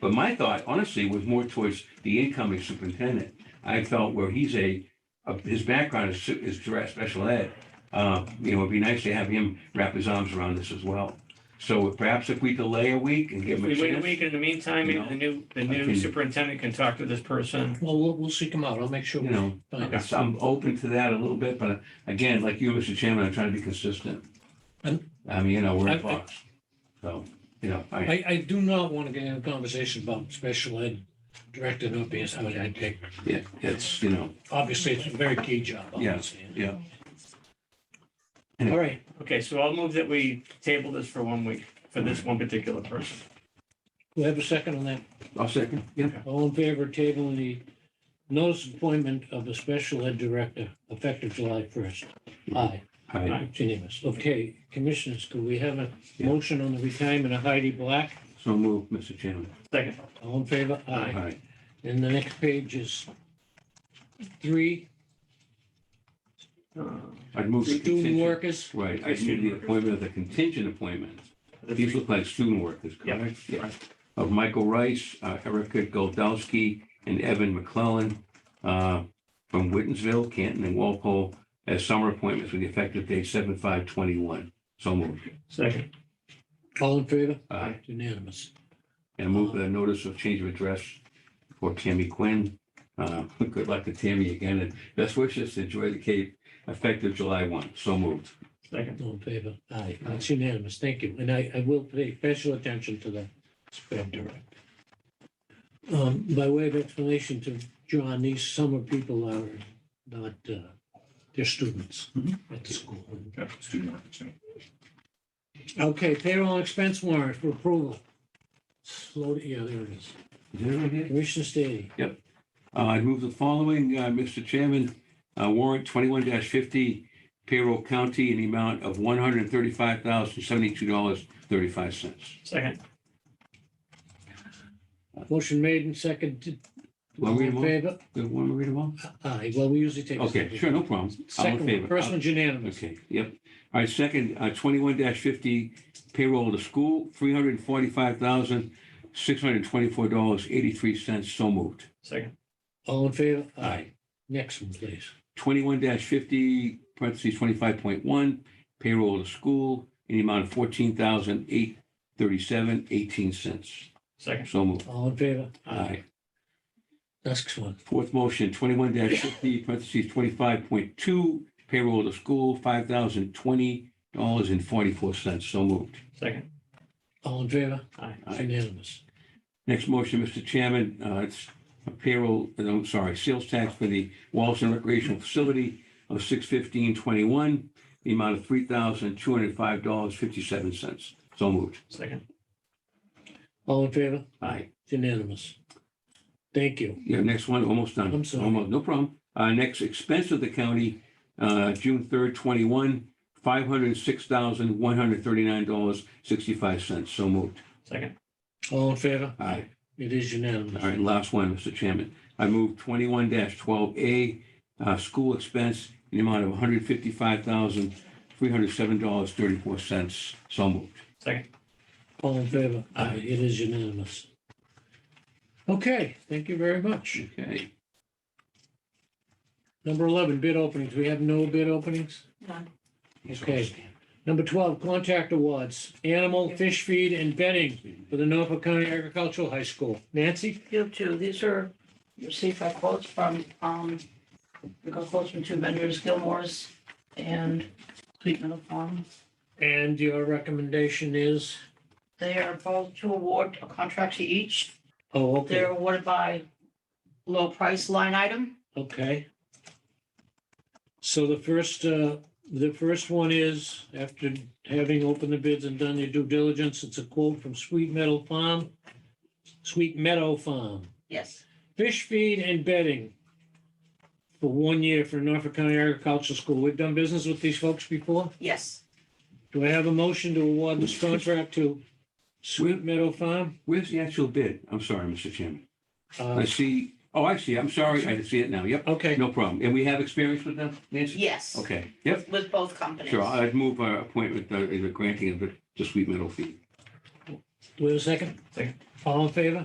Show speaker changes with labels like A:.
A: But my thought honestly was more towards the incoming superintendent. I felt where he's a, a- his background is, su- is direct special ed. Uh, you know, it'd be nice to have him wrap his arms around this as well. So perhaps if we delay a week and give him
B: If
A: a
B: we wait a
A: chance.
B: week, in the meantime, maybe the new, the new
A: Okay.
B: superintendent can talk to this person.
C: Well, we'll, we'll seek them out. I'll make sure.
A: You
C: we
A: know,
C: find
A: it's-
C: out.
A: I'm open to that a little bit, but again, like you, Mr. Chairman, I'm trying to be consistent.
C: And-
A: I mean, you know, we're
C: I-
A: in
C: I-
A: Fox. So, you know, I,
C: I, I do not want to get into a conversation about special ed director not being somebody I'd take.
A: it- it's, you know,
C: Obviously, it's a very key job.
A: Yeah,
C: obviously.
A: yeah.
C: All right,
B: Okay, so I'll move that we table this for one week for this one particular person.
C: we have a second on that.
A: I'll second, yeah.
C: All in favor of tabling the notice of appointment of a special ed director effective July first? Aye,
A: I-
C: it's unanimous. Okay, commissioners, could we have a
A: Yeah.
C: motion on the retirement of Heidi Black?
A: So move, Mr. Chairman.
B: Second,
C: All in favor? Aye.
A: Aye.
C: And the next page is three,
B: uh,
A: I'd move the
C: student
A: contingent.
C: workers.
A: Right, I move the appointment of the contingent appointments.
B: the
A: These
B: three-
A: look like student workers,
B: Yeah,
A: correct?
B: right.
A: Of Michael Rice, uh, Erica Goldowski, and Evan McClellan uh, from Wittensville, Canton, and Walpole as summer appointments with the effective date seven five twenty-one. So moved.
B: Second,
C: All in favor?
A: Uh,
C: It's Unanimous.
A: And move the notice of change of address for Tammy Quinn. Uh, Good luck to Tammy again, and best wishes to enjoy the Cape effective July one. So moved.
B: second,
C: All in favor? Aye. It's unanimous. Thank you. And I, I will pay special attention to the sped director. Um, by way of explanation to John, these summer people are not, uh, they're students
A: Mm-hmm.
C: at the school.
D: Yeah, student workers.
C: Okay, payroll and expense warrant for approval. Slow, yeah, there it is.
A: Is that right here?
C: Commissioner Stady.
A: Uh, I move the following, uh, Mr. Chairman, Uh, warrant twenty-one fifty payroll county in the amount of one hundred thirty-five thousand seventy-two dollars thirty-five cents.
B: second,
C: Motion made and seconded.
A: Want
C: All
A: me to
C: in
A: move?
C: favor?
A: Want me to read them all?
C: Aye. Well, we usually take. a
A: Okay,
C: second.
A: sure, no problem. All in
C: Second,
A: favor?
C: one. first one's unanimous.
A: Okay, yep. All right, second, uh, twenty-one fifty payroll to school, three hundred forty-five thousand six hundred twenty-four dollars eighty-three cents. So moved.
B: second,
C: All in favor?
A: Aye.
C: Next one, please.
A: twenty-one fifty, parentheses, twenty-five point one, payroll to school, in the amount of fourteen thousand eight thirty-seven, eighteen cents.
B: second,
A: So moved.
C: All in favor?
A: Aye.
C: Next one.
A: Fourth motion, twenty-one fifty, parentheses, twenty-five point two, payroll to school, five thousand twenty dollars and forty-four cents. So moved.
B: second,
C: All in favor?
B: Aye.
C: It's unanimous.
A: Next motion, Mr. Chairman, uh, it's a payroll, no, I'm sorry, sales tax for the Wallaston recreational facility of six fifteen twenty-one, the amount of three thousand two hundred five dollars fifty-seven cents. So moved.
B: second,
C: All in favor?
A: Aye.
C: It's unanimous. Thank you.
A: Yeah, next one, almost done.
C: I'm sorry.
A: Almost, no problem. Uh, next expense of the county, uh, June third, twenty-one, five hundred six thousand one hundred thirty-nine dollars sixty-five cents. So moved.
B: second,
C: All in favor?
A: Aye.
C: It is unanimous.
A: All right, last one, Mr. Chairman. I move twenty-one twelve A, uh, school expense in the amount of one hundred fifty-five thousand, three hundred seven dollars, thirty-four cents. So moved.
B: second.
C: All in favor?
A: Aye.
C: It is unanimous. Okay, thank you very much.
A: Okay.
C: Number 11, bid openings. We have no bid openings?
E: None.
C: Okay. Number 12, contract awards, animal, fish feed, and bedding for the Norfolk County Agricultural High School. Nancy?
E: You too. These are, you see, five quotes from, um, we got quotes from two vendors, Gilmore's and Sweet Meadow Farm.
C: And your recommendation is,
E: They are both to award a contract to each.
C: oh,
E: They're
C: okay,
E: awarded by low price line item.
C: okay. So the first, uh, the first one is, after having opened the bids and done your due diligence, it's a quote from Sweet Meadow Farm, Sweet Meadow Farm,
E: Yes.
C: fish feed and bedding for one year for Norfolk County Agricultural School. We've done business with these folks before.
E: Yes.
C: Do I have a motion to award this contract to Sweet Meadow Farm?
A: Where's the actual bid? I'm sorry, Mr. Chairman. I
C: Uh,
A: see, oh, I see. I'm sorry. I see it now. Yep,
C: Okay,
A: no problem. And we have experience with them, Nancy?
E: Yes.
A: Okay, yep,
E: With both companies.
A: sure. I'd move our appointment, uh, the granting of the the sweet metal fee.
C: wait a second.
B: Second.
C: All in favor?